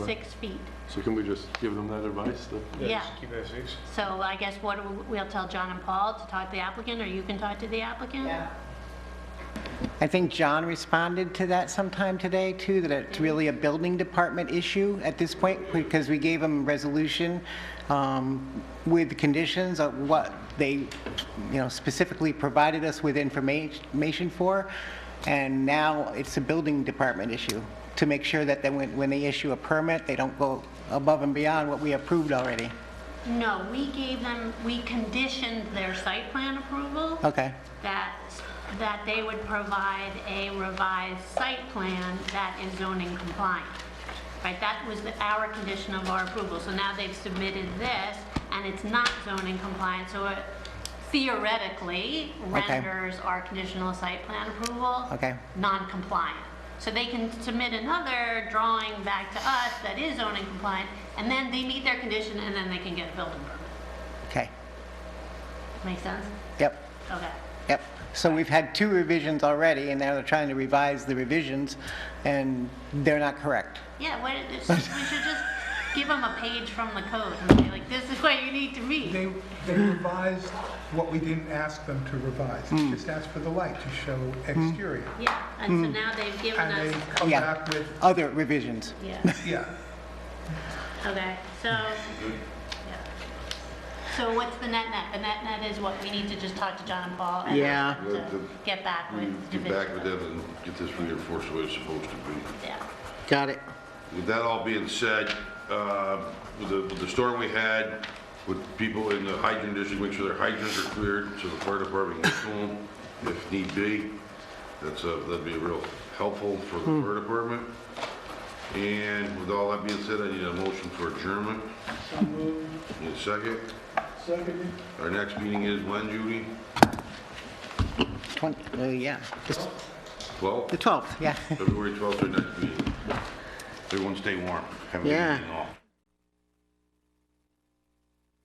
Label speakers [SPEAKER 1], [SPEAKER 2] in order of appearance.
[SPEAKER 1] six feet.
[SPEAKER 2] So can we just give them that advice? that-
[SPEAKER 1] Yeah.
[SPEAKER 3] just Keep it at six.
[SPEAKER 1] So I guess what, do we- we'll tell John and Paul to talk to the applicant, or you can talk to the applicant?
[SPEAKER 4] Yeah.
[SPEAKER 5] I think John responded to that sometime today, too, that it's really a building department issue at this point, because we gave him resolution um, with conditions of what they, you know, specifically provided us with informa- information for, and now it's a building department issue, to make sure that then when when they issue a permit, they don't go above and beyond what we approved already.
[SPEAKER 1] No, we gave them, we conditioned their site plan approval
[SPEAKER 5] Okay,
[SPEAKER 1] that, that they would provide a revised site plan that is zoning compliant. Right, that was the- our condition of our approval. So now they've submitted this, and it's not zoning compliant, so it theoretically
[SPEAKER 5] Okay.
[SPEAKER 1] renders our conditional site plan approval
[SPEAKER 5] Okay.
[SPEAKER 1] non-compliant. So they can submit another drawing back to us that is zoning compliant, and then they meet their condition, and then they can get a building permit.
[SPEAKER 5] okay,
[SPEAKER 1] Make sense?
[SPEAKER 5] yep.
[SPEAKER 1] Okay.
[SPEAKER 5] Yep. So we've had two revisions already, and now they're trying to revise the revisions, and they're not correct.
[SPEAKER 1] Yeah, what, it's just, we should just give them a page from the code and say like, this is what you need to read.
[SPEAKER 6] They, they revised what we didn't ask them to revise. Just ask for the light to show exterior.
[SPEAKER 1] Yeah, and so now they've given
[SPEAKER 6] Hmm. And they
[SPEAKER 1] us,
[SPEAKER 6] come
[SPEAKER 5] Yeah.
[SPEAKER 6] back with,
[SPEAKER 5] Other revisions.
[SPEAKER 1] yeah,
[SPEAKER 6] yeah,
[SPEAKER 1] okay, so, yeah. So what's the net net? The net net is what, we need to just talk to John and Paul and
[SPEAKER 5] Yeah.
[SPEAKER 1] ask them to get back
[SPEAKER 7] We
[SPEAKER 1] with.
[SPEAKER 7] Mm, Get back with
[SPEAKER 1] Davidoff.
[SPEAKER 7] them and get this reinforced the way it's supposed to be.
[SPEAKER 1] Yeah,
[SPEAKER 5] Got it.
[SPEAKER 7] With that all being said, uh, with the, with the storm we had, with people in the hydrant district, make sure their hydrants are cleared so the fire department can pull them if need be. That's, uh, that'd be real helpful for the fire department. And with all that being said, I need a motion for adjournment. Need a second?
[SPEAKER 3] Second.
[SPEAKER 7] Our next meeting is when, Judy?
[SPEAKER 5] Twen- uh, yeah, Just the
[SPEAKER 7] 12th?
[SPEAKER 5] 12th, yeah.
[SPEAKER 7] February 12th, our next meeting. Everyone stay warm. Have a good
[SPEAKER 5] Yeah.
[SPEAKER 7] evening all.